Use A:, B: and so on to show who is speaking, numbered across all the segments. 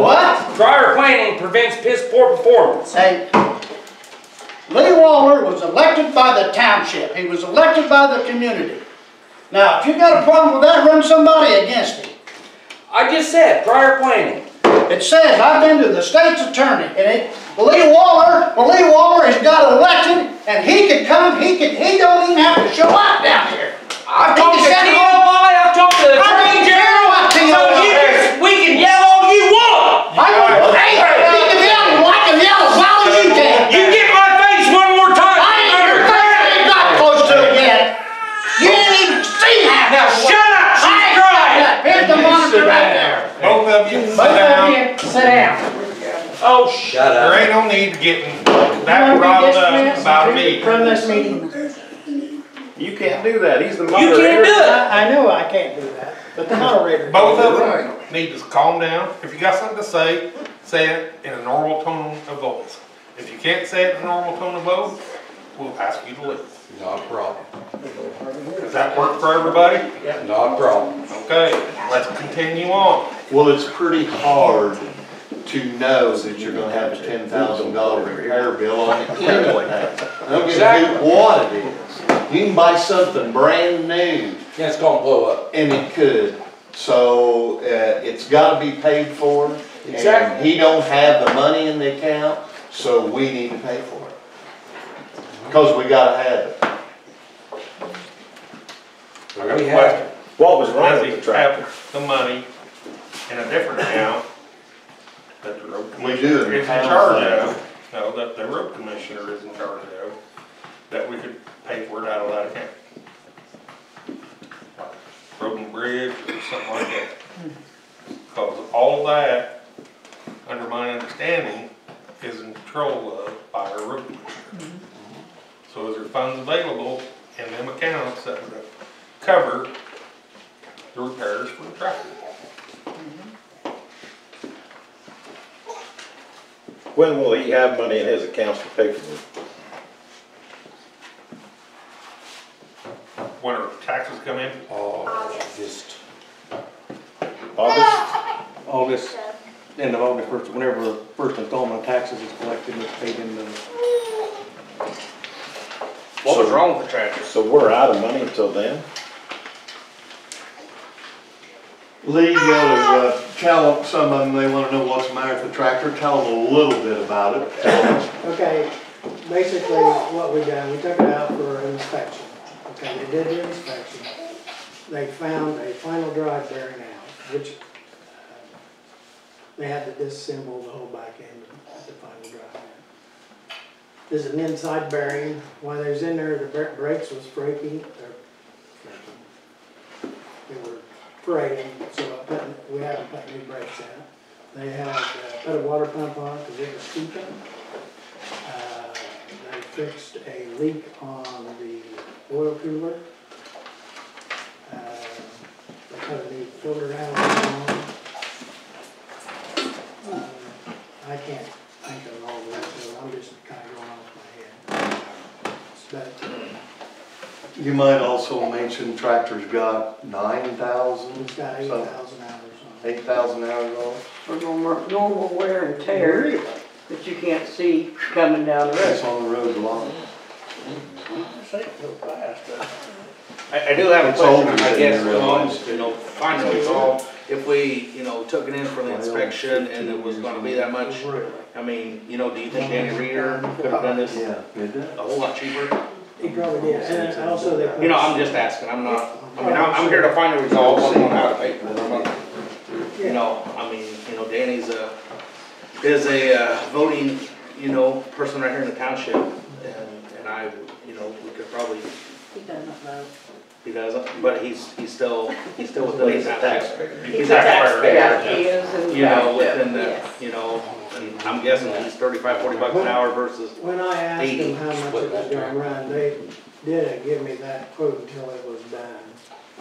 A: What?
B: Prior planning prevents piss poor performance.
A: Hey, Lee Waller was elected by the township. He was elected by the community. Now, if you got a problem with that, run somebody against him.
B: I just said prior planning.
A: It says, I've been to the state's attorney, and it, Lee Waller, well, Lee Waller has got elected, and he could come, he could, he don't even have to show up down here.
B: I've
A: He
B: talked
A: can
B: to
A: send him
B: T.O. Lye, I've talked to the
A: I
B: Attorney
A: don't care
B: General,
A: about
B: so
A: T.O.
B: you
A: Lye.
B: can, we can yell all you want.
A: I don't, hey, he can be out and black and yellow as loud as you can.
B: You get my face one more time.
A: I ain't
B: you
A: even
B: murderer.
A: barely got close to it yet. You didn't even see that.
B: Now shut up,
A: I
B: she's
A: ain't
B: crying.
A: got that. Here's the monitor right there.
C: Both of you sit
A: Both of
C: down.
A: you, sit down.
B: Oh, shut
C: There
B: up.
C: ain't no need getting
A: Remember
C: that
A: we
C: riled up
A: dismissed
C: about me.
A: From this meeting.
D: You can't do that, he's the
B: You
D: moderator.
B: can't do it.
E: I I know I can't do that, but the moderator.
C: Both of them need to calm down. If you got something to say, say it in a normal tone of voice. If you can't say it in a normal tone of voice, we'll ask you to leave.
F: Not a problem,
C: Does that work for everybody?
F: not a problem.
C: Okay, let's continue on.
D: Well, it's pretty hard to know that you're gonna have a ten thousand dollar repair bill on it anyway. I don't give a
B: Exactly.
D: hoot what it is. You can buy something brand new
B: Yeah, it's gonna blow up.
D: and it could. So, uh, it's gotta be paid for. And
B: Exactly.
D: he don't have the money in the account, so we need to pay for it. Cause we gotta have it.
F: I got
B: We
F: a
B: have-
F: question.
D: What was
C: Does he have the money in a different account that the road
D: We do it
C: commissioner
D: in
C: is in
D: town.
C: charge of? No, that the road commissioner is in charge of, that we could pay for it out of that account. Like Road and bridge or something like that. Cause all that, under my understanding, is in control of by our road commissioner. So is there funds available in them accounts that would cover the repairs for the tractor.
G: When will he have money in his accounts to pay for it?
C: When our taxes come in,
F: Oh, just,
G: August?
H: August, end of August, first, whenever the first installment of taxes is collected, it's paid in the,
G: What was
C: wrong with the tractor?
G: So we're out of money until then?
D: Lee, you ought to, uh, tell some of them, they wanna know what's the matter with the tractor, tell them a little bit about it. Tell them,
E: Okay, basically what we done, we took it out for an inspection. Okay, they did the inspection. They found a final drive bearing out, which uh, they had to disassemble the whole back end of the final drive. end. There's an inside bearing. While they was in there, the bra- brakes was breaking, or freaking. They were parading, so I put, we had to put new brakes in. They had, uh, put a water pump on because it was seeping. Uh, They fixed a leak on the oil cooler. Uh, They put a new filter housing on. Uh, I can't think of all that, so I'm just kind of going off my head. But uh,
D: you might also mention tractor's got nine thousand,
E: it's got eight thousand hours on it.
D: eight thousand hours on it.
I: for normal, normal wear and tear that you can't see coming down the road.
D: It's on the road a lot.
J: I, I do have a
D: It's older
J: question, I
D: than
J: guess,
D: you
J: along,
D: realize.
J: you know, finally, so if we, you know, took it in for the inspection and it was gonna be that much, I mean, you know, do you think Danny Reader could have done this a
D: Yeah, it does.
J: whole lot cheaper?
E: He probably did, and also they. put-
J: You know, I'm just asking, I'm not, I mean, I'm, I'm here to find a result, I'm not out of paper, I'm not- you know, I mean, you know, Danny's a, is a uh, voting, you know, person right here in the township, and, and I, you know, we could probably,
I: He doesn't vote.
J: he doesn't, but he's, he's still, he's still within the township.
I: He's
J: He's
I: a
J: a
I: taxpayer.
J: taxpayer,
I: Yeah, he is. and-
J: you know, within the,
I: Yes.
J: you know, and I'm guessing it's thirty-five, forty bucks an hour versus,
E: When I asked them how much it
F: Split
E: was
F: that
E: gonna run, they didn't give me that quote until it was done.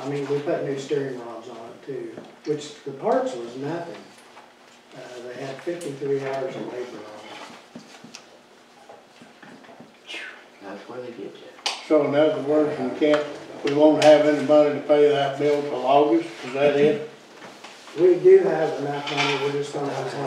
E: I mean, we put new steering rods on it too, which the parts was nothing. Uh, they had fifty-three hours of labor on
I: That's where they get you.
H: So in other words, we can't, we won't have any money to pay that bill till August, is that it?
E: We do have enough money, we're just gonna have to